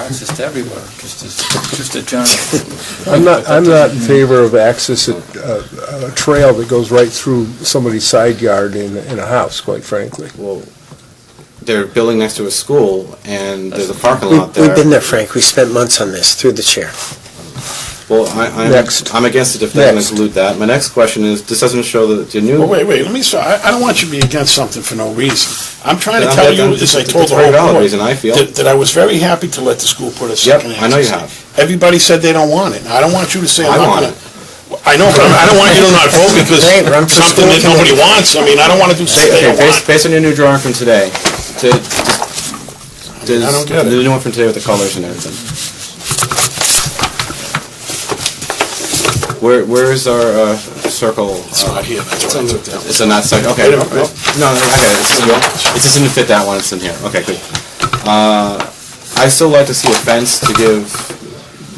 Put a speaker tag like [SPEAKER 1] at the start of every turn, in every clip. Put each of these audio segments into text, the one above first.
[SPEAKER 1] access to everywhere, just as, just a general.
[SPEAKER 2] I'm not, I'm not in favor of access, uh, uh, a trail that goes right through somebody's side yard in, in a house, quite frankly.
[SPEAKER 3] Well, they're building next to a school, and there's a parking
[SPEAKER 4] We-
[SPEAKER 3] lot there.
[SPEAKER 4] We've been there, Frank. We spent months on this, through the chair.
[SPEAKER 3] Well, I, I'm,
[SPEAKER 2] Next.
[SPEAKER 3] I'm against it if they're going
[SPEAKER 2] Next.
[SPEAKER 3] to dilute that. My next question is, this doesn't show that the new.
[SPEAKER 5] Well, wait, wait, let me start, I, I don't want you to be against something for no reason. I'm trying to
[SPEAKER 3] Yeah,
[SPEAKER 5] tell
[SPEAKER 3] I'm-
[SPEAKER 5] you,
[SPEAKER 3] I'm-
[SPEAKER 5] as I
[SPEAKER 3] it's a
[SPEAKER 5] told the
[SPEAKER 3] very
[SPEAKER 5] whole
[SPEAKER 3] valid
[SPEAKER 5] board,
[SPEAKER 3] reason, I feel.
[SPEAKER 5] That, that I was very happy to let the school put a
[SPEAKER 3] Yep,
[SPEAKER 5] second access.
[SPEAKER 3] I know you
[SPEAKER 5] in.
[SPEAKER 3] have.
[SPEAKER 5] Everybody said they don't want it. I don't want you to say
[SPEAKER 3] I
[SPEAKER 5] I'm not
[SPEAKER 3] want
[SPEAKER 5] gonna. I know, but I'm- I don't want you to not vote because
[SPEAKER 4] Hey, run for
[SPEAKER 5] something
[SPEAKER 4] school
[SPEAKER 5] that nobody
[SPEAKER 4] committee.
[SPEAKER 5] wants. I mean, I don't want to do something
[SPEAKER 3] Okay,
[SPEAKER 5] they don't
[SPEAKER 3] based,
[SPEAKER 5] want.
[SPEAKER 3] based on your new drawing from today, to, does,
[SPEAKER 5] I don't get it.
[SPEAKER 3] the new one from today with the colors and everything. Where, where is our uh, circle?
[SPEAKER 5] It's
[SPEAKER 3] uh,
[SPEAKER 5] not here, that's why I took that.
[SPEAKER 3] It's in that section, okay.
[SPEAKER 5] Wait a
[SPEAKER 3] No,
[SPEAKER 5] minute,
[SPEAKER 3] no, I got it, it's in the- it doesn't fit that one, it's in here, okay, good. Uh, I still like to see a fence to give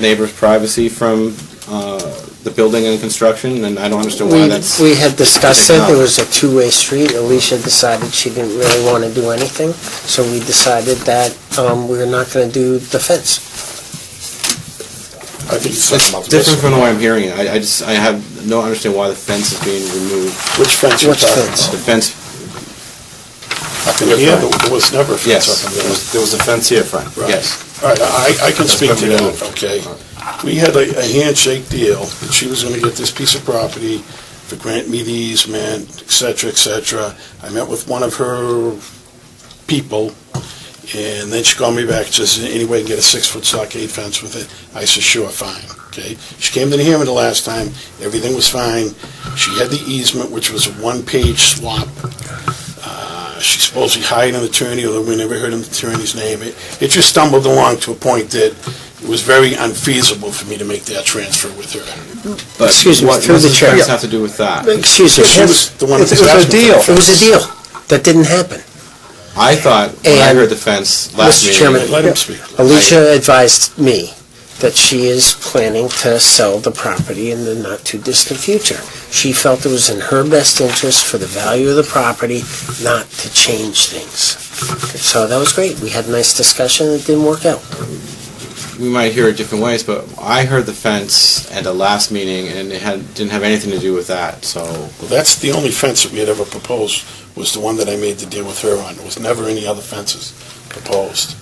[SPEAKER 3] neighbors privacy from uh, the building and construction, and I don't understand why
[SPEAKER 4] We,
[SPEAKER 3] that's...
[SPEAKER 4] we had discussed
[SPEAKER 3] They
[SPEAKER 4] it,
[SPEAKER 3] cannot.
[SPEAKER 4] it was a two-way street. Alicia decided she didn't really want to do anything, so we decided that um, we were not going to do the fence.
[SPEAKER 5] I think
[SPEAKER 3] It's
[SPEAKER 5] it's talking about
[SPEAKER 3] different
[SPEAKER 5] this.
[SPEAKER 3] from the way I'm hearing it. I, I just, I have no understanding why the fence is being removed.
[SPEAKER 5] Which fence you're
[SPEAKER 4] Which
[SPEAKER 5] talking
[SPEAKER 4] fence?
[SPEAKER 3] The
[SPEAKER 5] about?
[SPEAKER 3] fence,
[SPEAKER 5] Up in here, there there was never a fence
[SPEAKER 3] yes.
[SPEAKER 5] up in there.
[SPEAKER 3] There was a fence here, Frank.
[SPEAKER 5] Right.
[SPEAKER 3] Yes.
[SPEAKER 5] All right, I, I can
[SPEAKER 3] That's
[SPEAKER 5] speak to
[SPEAKER 3] been
[SPEAKER 5] that,
[SPEAKER 3] removed.
[SPEAKER 5] okay? We had a a handshake deal, that she was gonna get this piece of property to grant me the easement, et cetera, et cetera. I met with one of her people, and then she called me back, says, any way you can get a six-foot stockade fence with it? I said, sure, fine, okay? She came to the hearing the last time, everything was fine. She had the easement, which was a one-page swap. Uh, She supposedly hired an attorney, although we never heard an attorney's name. It it just stumbled along to a point that it was very unfeasible for me to make that transfer with her.
[SPEAKER 3] But
[SPEAKER 4] Excuse me,
[SPEAKER 3] what-
[SPEAKER 4] through the
[SPEAKER 3] What
[SPEAKER 4] chair.
[SPEAKER 3] does the fence have to do with that?
[SPEAKER 4] Excuse me.
[SPEAKER 5] She was the one that
[SPEAKER 2] It was a
[SPEAKER 5] asking for the
[SPEAKER 2] deal.
[SPEAKER 4] It was a deal that didn't happen.
[SPEAKER 3] I thought, when I
[SPEAKER 4] And-
[SPEAKER 3] heard the fence last
[SPEAKER 4] Mr.
[SPEAKER 3] meeting...
[SPEAKER 4] Chairman,
[SPEAKER 5] Let him speak.
[SPEAKER 4] Alicia advised me that she is planning to sell the property in the not-too-distant future. She felt it was in her best interest for the value of the property not to change things. So that was great. We had a nice discussion. It didn't work out.
[SPEAKER 3] we might hear it different ways, but I heard the fence at the last meeting, and it had, didn't have anything to do with that, so...
[SPEAKER 5] Well, that's the only fence that we had ever proposed, was the one that I made the deal with her on. There was never any other fences proposed.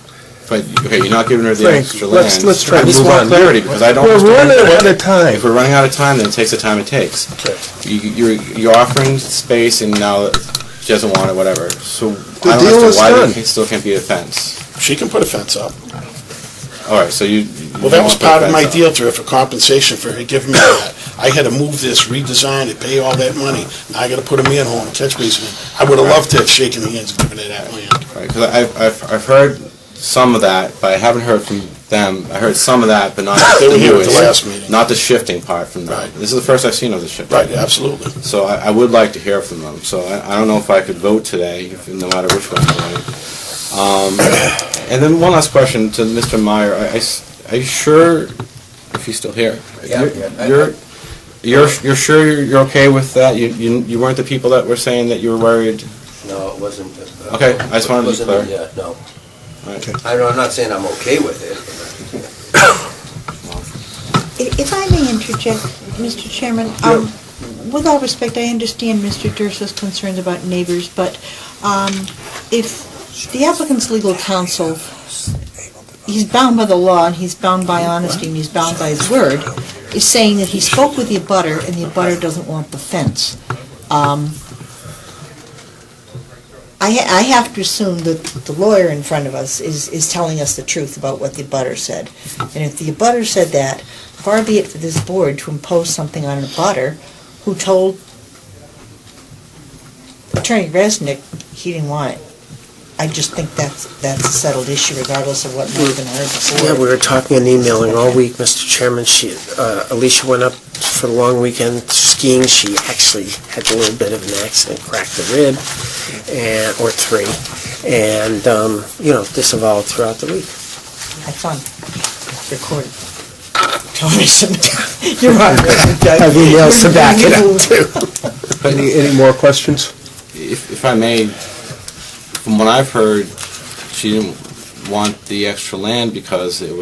[SPEAKER 3] But, okay, you're not giving her the
[SPEAKER 2] Frank,
[SPEAKER 3] extra land.
[SPEAKER 2] let's- let's try
[SPEAKER 3] I
[SPEAKER 2] to
[SPEAKER 3] just
[SPEAKER 2] move
[SPEAKER 3] want
[SPEAKER 2] on.
[SPEAKER 3] clarity, because I don't...
[SPEAKER 2] We're
[SPEAKER 3] understand
[SPEAKER 2] running
[SPEAKER 3] that.
[SPEAKER 2] out of time.
[SPEAKER 3] If we're running out of time, then it takes the time it takes.
[SPEAKER 5] Okay.
[SPEAKER 3] You, you're, you're offering space, and now she doesn't want it, whatever. So, I
[SPEAKER 2] deal
[SPEAKER 3] don't
[SPEAKER 2] is
[SPEAKER 3] understand why
[SPEAKER 2] done.
[SPEAKER 3] there can- still can't be a fence.
[SPEAKER 5] She can put a fence up.
[SPEAKER 3] All right, so you...
[SPEAKER 5] Well, that was part of my deal to her for compensation for her giving me that. I had to move this, redesign it, pay all that money. Now I gotta put a manhole and catch basin in. I would've loved to have shaken hands and given her that land.
[SPEAKER 3] Because I've, I've, I've heard some of that, but I haven't heard from them. I heard some of that, but not
[SPEAKER 5] They were
[SPEAKER 3] the
[SPEAKER 5] here at the
[SPEAKER 3] newest-
[SPEAKER 5] last meeting.
[SPEAKER 3] Not the shifting part from them.
[SPEAKER 5] Right.
[SPEAKER 3] This is the first I've seen of the shifting.
[SPEAKER 5] Right, absolutely.
[SPEAKER 3] So I, I would like to hear from them. So I, I don't know if I could vote today, if- no matter which one. I vote. Um, and then one last question to Mr. Meyer. I- I s- are you sure, if he's still here?
[SPEAKER 1] Yeah,
[SPEAKER 3] You're-
[SPEAKER 1] yeah, I-
[SPEAKER 3] You're, you're, you're sure you're, you're okay with that? You, you, you weren't the people that were saying that you were worried?
[SPEAKER 6] No, it wasn't. uh,
[SPEAKER 3] Okay, I just wanted to
[SPEAKER 6] wasn't,
[SPEAKER 3] be clear.
[SPEAKER 6] yeah, No,
[SPEAKER 3] All right.
[SPEAKER 6] I know, I'm not saying I'm okay with it.
[SPEAKER 7] If if I may interject, Mr. Chairman, um, with all respect, I understand Mr. Durso's concerns about neighbors, but um, if the applicant's legal counsel, he's bound by the law, and he's bound by honesty, and he's bound by his word, is saying that he spoke with the abutter, and the abutter doesn't want the fence. Um, I ha- I have to assume that the lawyer in front of us is is telling us the truth about what the abutter said. And if the abutter said that, far be it for this board to impose something on an abutter who told Attorney Resnick he didn't want it. I just think that's, that's a settled issue regardless of what might have been heard
[SPEAKER 4] Yeah, we
[SPEAKER 7] before.
[SPEAKER 4] were talking and emailing all week, Mr. Chairman. She, uh, Alicia went up for the long weekend skiing. She actually had a little bit of an accident, cracked a rib, and, or three, and, um, you know, this evolved throughout the week.
[SPEAKER 7] Have fun. Recorded. Tony, some, you're on, Resnick.
[SPEAKER 4] I've emailed to back it up, too.
[SPEAKER 2] Any, any more questions?
[SPEAKER 3] If, if I may, from what I've heard, she didn't want the extra land because it was.